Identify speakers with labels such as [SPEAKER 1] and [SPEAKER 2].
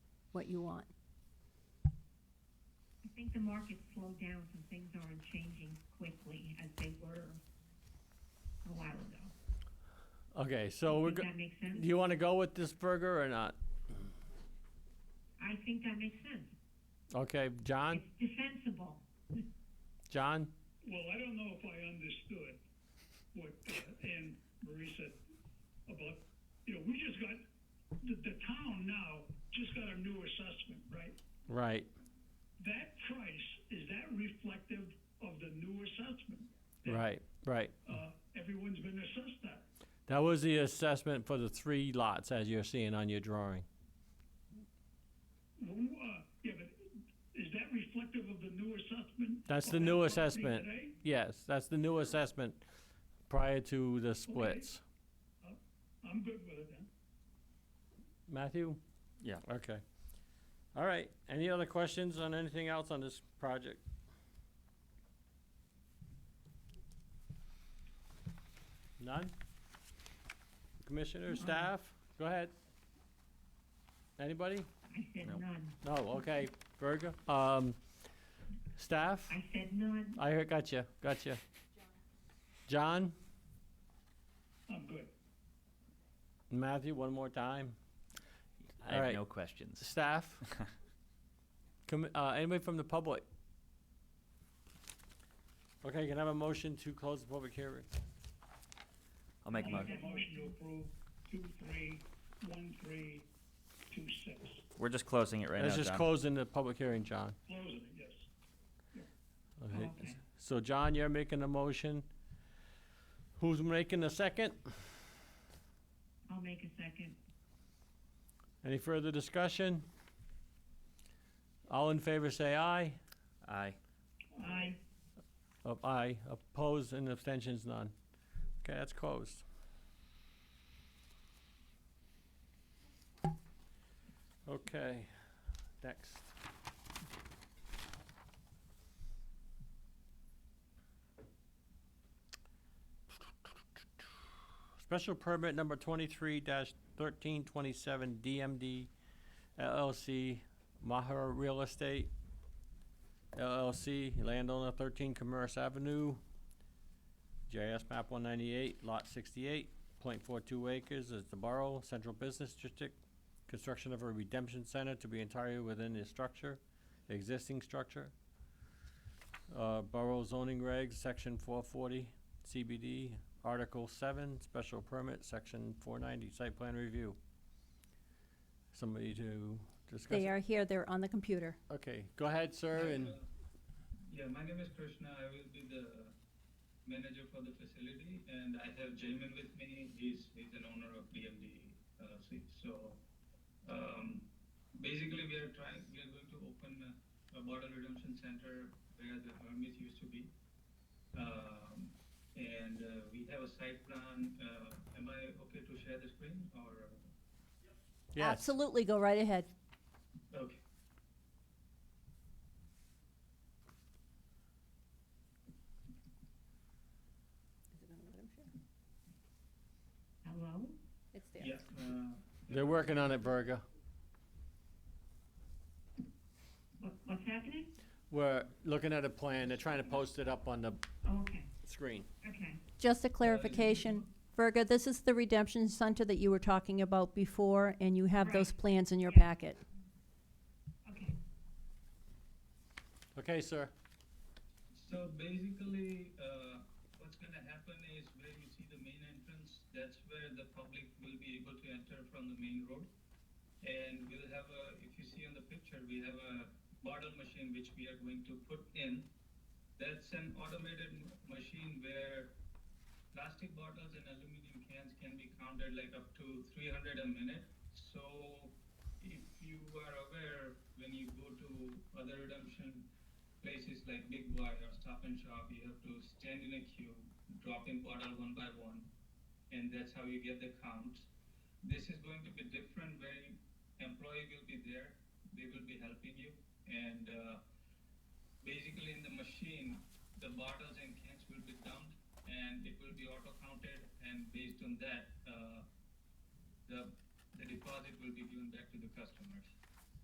[SPEAKER 1] what you want.
[SPEAKER 2] I think the market slowed down, so things aren't changing quickly as they were a while ago.
[SPEAKER 3] Okay, so we're,
[SPEAKER 2] Think
[SPEAKER 3] go-
[SPEAKER 2] that makes sense?
[SPEAKER 3] do you want to go with this burger or not?
[SPEAKER 2] I think that makes sense.
[SPEAKER 3] Okay, John,
[SPEAKER 2] It's defensible.
[SPEAKER 3] John?
[SPEAKER 4] Well, I don't know if I understood what uh, Anne Marie said about, you know, we just got, the, the town now just got a new assessment, right?
[SPEAKER 3] Right.
[SPEAKER 4] That price, is that reflective of the new assessment?
[SPEAKER 3] Right, right.
[SPEAKER 4] Uh, everyone's been assessed that.
[SPEAKER 3] That was the assessment for the three lots as you're seeing on your drawing.
[SPEAKER 4] Who, uh, yeah, but is that reflective of the new assessment?
[SPEAKER 3] That's
[SPEAKER 4] of
[SPEAKER 3] the
[SPEAKER 4] that
[SPEAKER 3] new
[SPEAKER 4] property
[SPEAKER 3] assessment.
[SPEAKER 4] today?
[SPEAKER 3] Yes, that's the new assessment prior to the splits.
[SPEAKER 4] I'm good with it then.
[SPEAKER 3] Matthew?
[SPEAKER 5] Yeah.
[SPEAKER 3] Okay. All right, any other questions on anything else on this project? None? Commissioner, staff, go ahead. Anybody?
[SPEAKER 2] I said
[SPEAKER 5] No.
[SPEAKER 2] none.
[SPEAKER 3] No, okay, Berger, um, staff?
[SPEAKER 2] I said none.
[SPEAKER 3] I heard, gotcha, gotcha. John,
[SPEAKER 4] I'm good.
[SPEAKER 3] Matthew, one more time.
[SPEAKER 5] I
[SPEAKER 3] All
[SPEAKER 5] have
[SPEAKER 3] right.
[SPEAKER 5] no questions.
[SPEAKER 3] Staff? Com- uh, anybody from the public? Okay, can I have a motion to close the public hearing?
[SPEAKER 5] I'll make a
[SPEAKER 4] I
[SPEAKER 5] motion.
[SPEAKER 4] make a motion to approve two, three, one, three, two, six.
[SPEAKER 5] We're just closing it right
[SPEAKER 3] Let's
[SPEAKER 5] now,
[SPEAKER 3] just
[SPEAKER 5] John.
[SPEAKER 3] closing the public hearing, John.
[SPEAKER 4] Closing, it, yes.
[SPEAKER 3] Okay.
[SPEAKER 2] Okay.
[SPEAKER 3] So, John, you're making a motion. Who's making the second?
[SPEAKER 2] I'll make a second.
[SPEAKER 3] Any further discussion? All in favor, say aye.
[SPEAKER 5] Aye.
[SPEAKER 2] I,
[SPEAKER 3] Oh, aye. Opposed and abstentions, none. Okay, that's closed. Okay, next. Special permit number twenty-three thirteen twenty-seven DMD LLC, Mahara Real Estate LLC, landowner thirteen Commerce Avenue, JS map one ninety-eight, lot sixty-eight, point four-two acres is the borough, central business district, construction of a redemption center to be entirely within the structure, existing structure. Uh, Borough zoning regs, section four forty, CBD, article seven, special permit, section four ninety, site plan review. Somebody to discuss?
[SPEAKER 1] They
[SPEAKER 3] it?
[SPEAKER 1] are here, they're on the computer.
[SPEAKER 3] Okay, go ahead, sir, and,
[SPEAKER 6] Yeah, my name is Krishna. I will be the manager for the facility, and I have Jamin with me. He's he's an owner of BMD LLC. uh, So um, basically, we are trying. We are going to open a, a bottle redemption center where the Hermes used to be, um, and uh, we have a site plan. Uh, am I okay to share the screen or? uh,
[SPEAKER 3] yes,
[SPEAKER 1] Absolutely, go right ahead.
[SPEAKER 6] Okay.
[SPEAKER 2] hello?
[SPEAKER 1] It's
[SPEAKER 6] Yeah. Uh,
[SPEAKER 3] they're working on it, Virgo.
[SPEAKER 2] What, what's happening?
[SPEAKER 3] We're looking at a plan, they're trying to post it up on the
[SPEAKER 2] Oh, okay,
[SPEAKER 3] screen.
[SPEAKER 2] okay.
[SPEAKER 1] Just a clarification, Virga, this is the redemption center that you were talking about before, and you have those
[SPEAKER 2] Right.
[SPEAKER 1] plans in your
[SPEAKER 2] Yeah.
[SPEAKER 1] packet.
[SPEAKER 2] Okay.
[SPEAKER 3] Okay, sir,
[SPEAKER 6] So basically, uh, what's gonna happen is where you see the main entrance, that's where the public will be able to enter from the main road. And we'll have a, if you see on the picture, we have a bottle machine which we are going to put in. That's an automated m- machine where plastic bottles and aluminum cans can be counted like up to three hundred a minute. So if you are aware, when you go to other redemption places like Big Boy or Stop and Shop, you have to stand in a queue, drop in bottle one by one, and that's how you get the count. This is going to be different where you- employee will be there, they will be helping you, and uh, basically in the machine, the bottles and cans will be dumped, and it will be auto counted, and based on that, uh, the, the deposit will be given back to the customers.